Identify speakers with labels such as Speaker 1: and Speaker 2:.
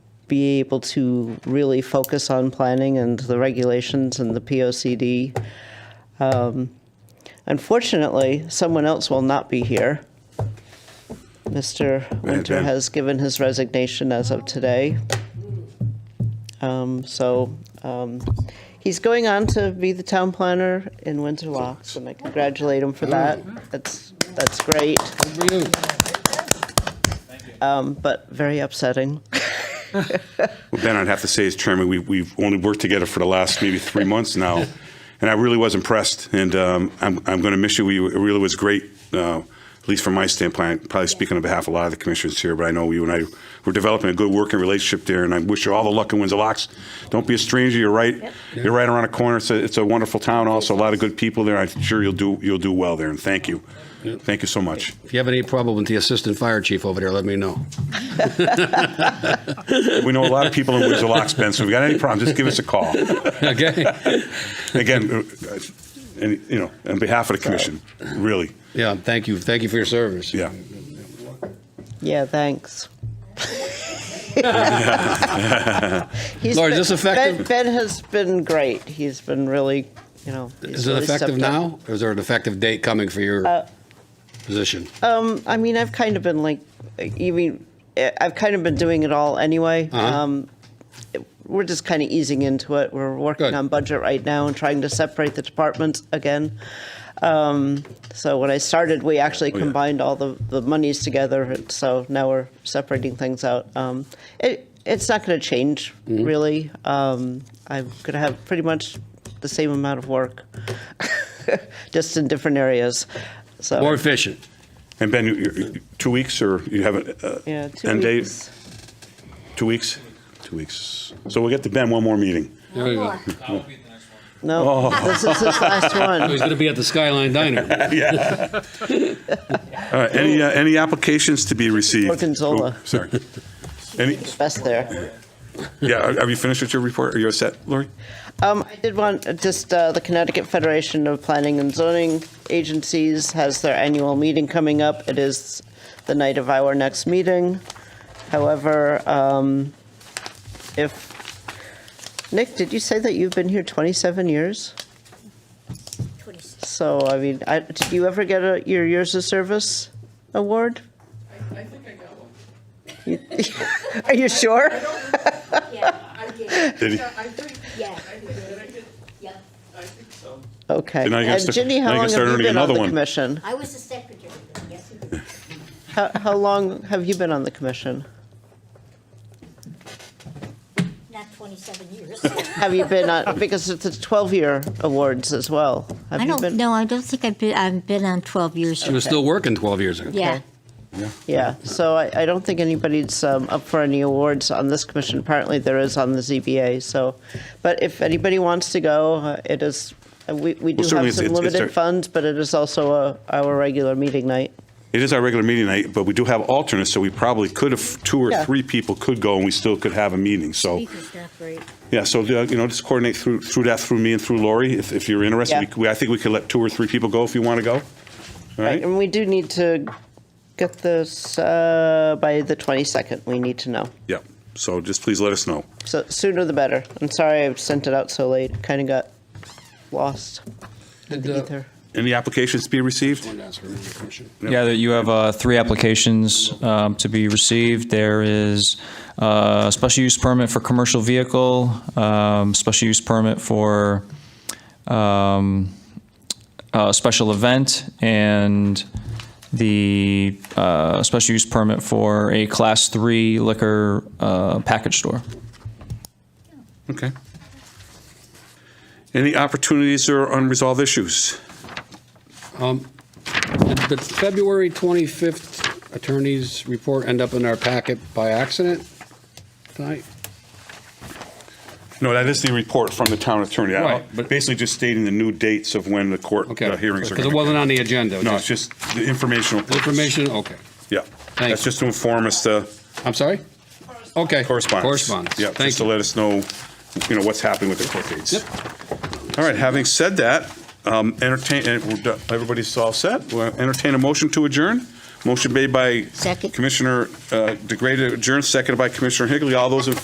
Speaker 1: be able to really focus on planning and the regulations and the POCD. Um, Unfortunately, someone else will not be here. Mr. Winter
Speaker 2: Ben.
Speaker 1: has given his resignation as of today. Um, So um, he's going on to be the town planner in Windsor Locks, and I congratulate him for that. That's, that's great,
Speaker 3: For you.
Speaker 1: um, but very upsetting.
Speaker 2: Well, Ben, I'd have to say, as chairman, we, we've only worked together for the last maybe three months now, and I really was impressed. And um, I'm, I'm going to miss you. We, it really was great, uh, at least from my standpoint. Probably speaking on behalf of a lot of the commissioners here, but I know you and I were developing a good working relationship there, and I wish you all the luck in Windsor Locks. Don't be a stranger. You're right. You're right around the corner. It's a, it's a wonderful town. Also, a lot of good people there. I'm sure you'll do you'll do well there. And thank you, thank you so much.
Speaker 3: If you have any problem with the assistant fire chief over there, let me know.
Speaker 2: We know a lot of people in Windsor Locks, Ben. So if you got any problems, just give us a call.
Speaker 3: Okay?
Speaker 2: again, uh, and, you know, on behalf of the commission, really,
Speaker 3: Yeah, thank you. Thank you for your service.
Speaker 2: yeah.
Speaker 1: Yeah, thanks. He's
Speaker 3: Laura, is this
Speaker 1: been-
Speaker 3: effective?
Speaker 1: Ben, ben has been great. He's been really, you know. he's
Speaker 3: Is it
Speaker 1: really
Speaker 3: effective
Speaker 1: stepped up. Uh,
Speaker 3: now? Or is there an effective date coming for your position?
Speaker 1: Um, I mean, I've kind of been like, you mean, eh, I've kind of been doing it all anyway.
Speaker 3: Uh-huh.
Speaker 1: Um, it- we're just kind of easing into it. We're working
Speaker 3: Good.
Speaker 1: on budget right now and trying to separate the departments again. Um, so when I started, we actually
Speaker 2: Oh, yeah.
Speaker 1: combined all the, the monies together. and So now we're separating things out. Um, it, it's not going to change
Speaker 3: Mm-hmm.
Speaker 1: really. Um, I'm going to have pretty much the same amount of work, just in different areas. So
Speaker 3: More efficient.
Speaker 2: And Ben, you- you- two weeks or you have a, uh,
Speaker 1: yeah, two
Speaker 2: end date?
Speaker 1: weeks.
Speaker 2: Two weeks? Two weeks. So we'll get to Ben one more meeting.
Speaker 3: There we go.
Speaker 1: No, this is his last
Speaker 3: He's
Speaker 1: one.
Speaker 3: going to be at the Skyline Diner.
Speaker 2: Yeah. All right, any, uh, any applications to be received?
Speaker 1: Gorgonzola.
Speaker 2: Oh, Sorry. Any,
Speaker 1: Best there.
Speaker 2: yeah, are- have you finished with your report? Are you all set, Lori?
Speaker 1: Um, I did want uh, just uh, the Connecticut Federation of Planning and Zoning Agencies has their annual meeting coming up. It is the night of our next meeting. However, um, if Nick, did you say that you've been here 27 years? So I mean, I, did you ever get a, your years of service award?
Speaker 4: I think I got one.
Speaker 1: Are you sure?
Speaker 5: Yeah, I did,
Speaker 2: Did he?
Speaker 4: I think,
Speaker 5: yeah,
Speaker 4: I think, did I get,
Speaker 5: yep.
Speaker 4: I think so.
Speaker 1: Okay.
Speaker 2: Then I guess
Speaker 1: And
Speaker 2: the-
Speaker 1: Ginny, how
Speaker 2: then I
Speaker 1: long
Speaker 2: guess
Speaker 1: have
Speaker 2: they're
Speaker 1: you
Speaker 2: earning
Speaker 1: been on
Speaker 2: another
Speaker 1: the
Speaker 2: one.
Speaker 1: commission?
Speaker 5: I was the secretary, yes, it was.
Speaker 1: How, how long have you been on the commission?
Speaker 5: not 27 years.
Speaker 1: Have you been on, because it's a 12-year awards as well. Have
Speaker 5: I
Speaker 1: you
Speaker 5: don't,
Speaker 1: been-
Speaker 5: no, I don't think I've been, I've been on 12 years.
Speaker 3: He was still working 12 years ago.
Speaker 5: Yeah,
Speaker 1: Yeah, so I, I don't think anybody's um, up for any awards on this commission. Apparently, there is on the ZBA, so, but if anybody wants to go, uh, it is, uh, we, we do
Speaker 2: certainly
Speaker 1: have
Speaker 2: it's-
Speaker 1: some
Speaker 2: it's- it's
Speaker 1: limited
Speaker 2: a-
Speaker 1: funds, but it is also a- our regular meeting night.
Speaker 2: It is our regular meeting night, but we do have alternates, so we probably could have, two or
Speaker 1: Yeah.
Speaker 2: three people could go and we still could have a meeting, so.
Speaker 5: speaker's not great.
Speaker 2: Yeah, so, uh, you know, just coordinate through, through that, through me and through Lori, if, if you're interested.
Speaker 1: Yeah.
Speaker 2: We- I think we could let two or three people go if you want to go. All right?
Speaker 1: And we do need to get this uh, by the 22nd, we need to know.
Speaker 2: Yeah, so just please let us know.
Speaker 1: So sooner the better. I'm sorry I sent it out so late. Kind of got lost in
Speaker 3: uh,
Speaker 1: the ether.
Speaker 2: Any applications to be received?
Speaker 6: Yeah, that you have uh, three applications um, to be received. There is uh, a special use permit for commercial vehicle, um, special use permit for um, a special event, and the uh, special use permit for a Class 3 liquor uh, package store.
Speaker 2: Okay. Any opportunities or unresolved issues?
Speaker 3: um, Did the February 25th attorney's report end up in our packet by accident tonight?
Speaker 2: No, that is the report from the town attorney. I-
Speaker 3: Right, but-
Speaker 2: Basically just stating the new dates of when the court
Speaker 3: Okay.
Speaker 2: uh, hearings are.
Speaker 3: Because it
Speaker 2: gonna-
Speaker 3: wasn't on the agenda.
Speaker 2: No, it's just the informational. purpose.
Speaker 3: Information, okay.
Speaker 2: Yeah. That's
Speaker 3: you.
Speaker 2: just to inform us uh, the
Speaker 3: I'm sorry? Okay.
Speaker 2: correspondence.
Speaker 3: Correspondence.
Speaker 2: Yeah,
Speaker 3: Thank
Speaker 2: just to
Speaker 3: you.
Speaker 2: let us know, you know, what's happening with the court dates.
Speaker 3: Yep.
Speaker 2: All right, having said that, um, entertain, and we're do- everybody's all set? We'll Entertain a motion to adjourn? Motion made by
Speaker 5: Second.
Speaker 2: Commissioner uh, DeGray to adjourn, seconded by Commissioner Higley. All those in